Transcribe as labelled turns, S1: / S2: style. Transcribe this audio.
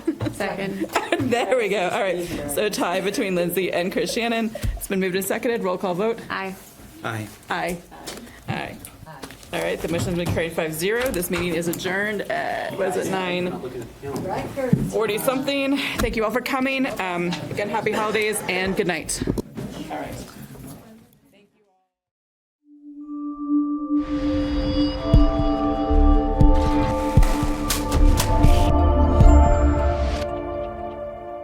S1: Second.
S2: There we go. All right. So a tie between Lindsay and Chris Shannon. It's been moved and seconded. Roll call vote.
S1: Aye.
S3: Aye.
S2: Aye. Aye. All right, the motion's been carried 5-0. This meeting is adjourned at, was it nine forty-something? Thank you all for coming. Um, Again, happy holidays and good night. All right.